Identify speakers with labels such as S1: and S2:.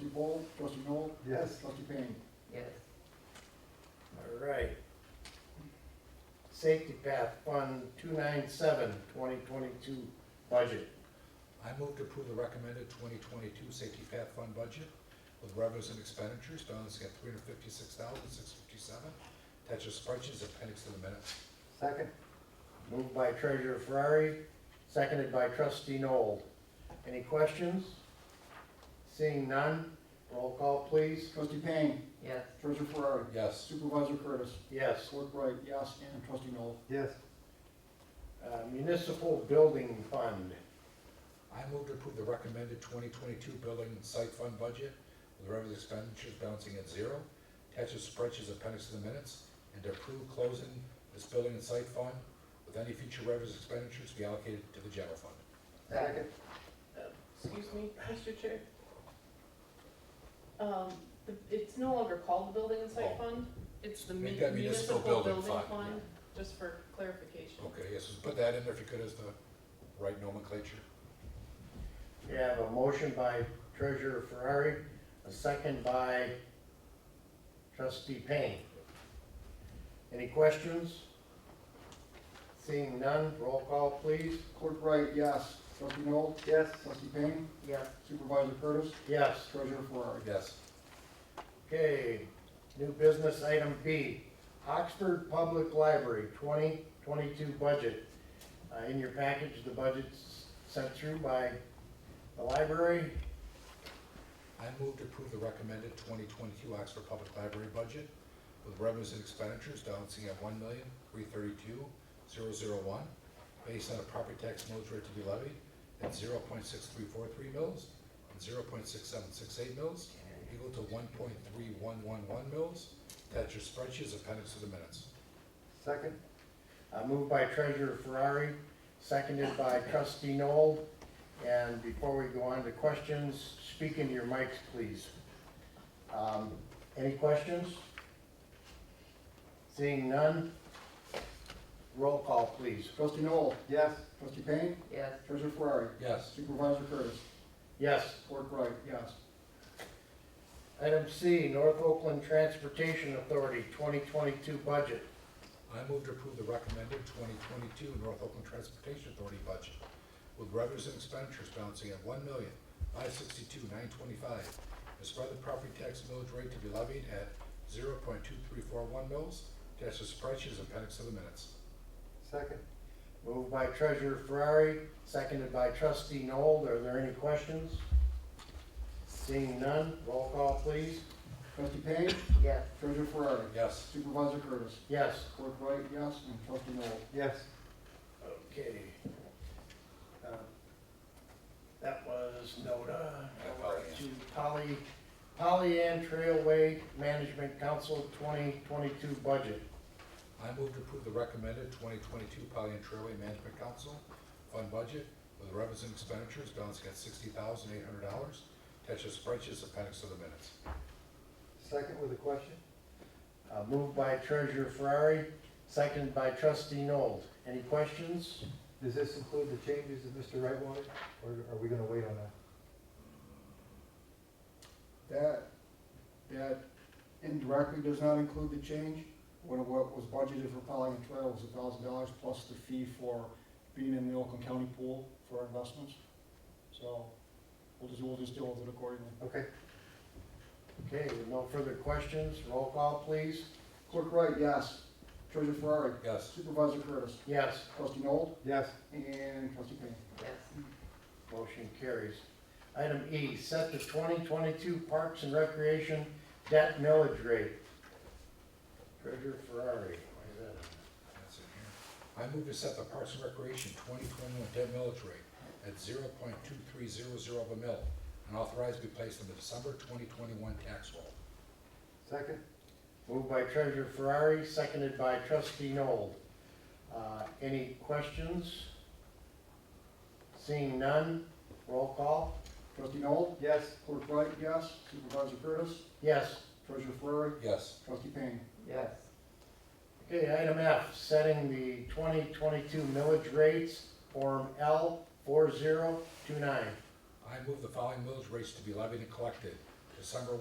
S1: Trustee Bowles, trustee Noel.
S2: Yes.
S1: Trustee Payne.
S3: Yes.
S4: All right. Safety Path Fund 297, 2022 budget.
S5: I move to approve the recommended 2022 Safety Path Fund budget with revenues and expenditures balancing at 356,657. Attached to spreadsheet is appendix to the minutes.
S2: Second?
S4: Moved by Treasurer Ferrari, seconded by Trustee Noel. Any questions? Seeing none, roll call please.
S1: Trustee Payne,
S3: Yes.
S1: treasurer Ferrari,
S5: Yes.
S1: supervisor Curtis,
S4: Yes.
S1: clerk Wright, yes, and trustee Noel.
S2: Yes.
S4: Uh, Municipal Building Fund.
S5: I move to approve the recommended 2022 Building and Site Fund budget with revenues and expenditures balancing at zero. Attached to spreadsheet is appendix to the minutes. And to approve closing this Building and Site Fund with any future revenues and expenditures to be allocated to the general fund.
S2: Second?
S6: Excuse me, Mr. Chair. Um, the- it's no longer called the Building and
S5: Oh.
S6: Site Fund, it's the
S5: Make
S6: mu-
S5: that
S6: Municipal Building Fund,
S5: yeah.
S6: just for clarification.
S5: Okay, yes, put that in there if you could as the right nomenclature.
S4: We have a motion by Treasurer Ferrari, a second by Trustee Payne. Any questions? Seeing none, roll call please.
S1: Clerk Wright, yes, trustee Noel,
S2: Yes.
S1: trustee Payne,
S3: Yes.
S1: supervisor Curtis,
S4: Yes.
S1: treasurer Ferrari.
S5: Yes.
S4: Okay, new business item B, Oxford Public Library 2022 budget. Uh, In your package, the budget's sent through by the library.
S5: I move to approve the recommended 2022 Oxford Public Library budget with revenues and expenditures balancing at $1,332,001 based on a property tax millage rate to be levied at 0.6343 mils and 0.6768 mils equal to 1.3111 mils. Attach your spreadsheet as appendix to the minutes.
S2: Second?
S4: Uh, Moved by Treasurer Ferrari, seconded by Trustee Noel. And before we go on to questions, speak into your mics, please. Um, Any questions? Seeing none, roll call, please.
S1: Trustee Noel,
S2: Yes.
S1: trustee Payne,
S3: Yes.
S1: treasurer Ferrari,
S5: Yes.
S1: supervisor Curtis,
S4: Yes.
S1: clerk Wright, yes,
S4: Item C, North Oakland Transportation Authority 2022 budget.
S5: I move to approve the recommended 2022 North Oakland Transportation Authority budget with revenues and expenditures balancing at one million, five sixty-two, nine twenty-five. As part of the property tax millage rate to be levied at zero point two three four one mils, attached to spreadsheet is appendix to the minutes.
S2: Second?
S4: Moved by Treasurer Ferrari, seconded by Trustee Noel. Are there any questions? Seeing none, roll call, please.
S1: trustee Payne,
S3: Yes.
S1: treasurer Ferrari,
S5: Yes.
S1: supervisor Curtis,
S4: Yes.
S1: clerk Wright, yes, and trustee Noel.
S2: Yes.
S4: Okay. Uh, That was NODA.
S5: Polly Ann.
S4: To Polly, Polly Ann Trailway Management Council 2022 budget.
S5: I move to approve the recommended 2022 Poly and Trailway Management Council Fund Budget with revenues and expenditures balancing at $60,800, attached to spreadsheet is appendix to the minutes.
S2: Second with a question?
S4: Uh, Moved by Treasurer Ferrari, seconded by Trustee Noel. Any questions?
S2: Does this include the changes that Mr. Wright wanted, or are we gonna wait on that?
S1: That, that indirectly does not include the change. What, what was budgeted for Pelican Trail was a thousand dollars plus the fee for being in the Oakland County pool for our investments. So we'll just, we'll just deal with it accordingly.
S2: Okay.
S4: Okay, with no further questions, roll call, please.
S1: Clerk Wright, yes. Treasurer Ferrari,
S5: Yes.
S1: Supervisor Curtis,
S4: Yes,
S1: Trustee Noel,
S2: Yes.
S1: and Trustee Payne.
S3: Yes.
S4: motion carries. Item E, set the 2022 Parks and Recreation debt millage rate. Treasurer Ferrari, why is that?
S5: That's in here. I move to set the Parks and Recreation 2021 debt millage rate at 0.2300 of a mill and authorize be placed in the December 2021 tax roll.
S2: Second?
S4: Moved by Treasurer Ferrari, seconded by Trustee Noel. Uh, Any questions? Seeing none, roll call.
S1: Trustee Noel,
S2: Yes.
S1: Clerk Wright, yes. Supervisor Curtis,
S4: Yes.
S1: Treasurer Ferrari,
S5: Yes.
S1: Trustee Payne.
S3: Yes.
S4: Okay, item F, setting the 2022 millage rates, Form L 4029.
S5: I move the following millage rates to be levied and collected December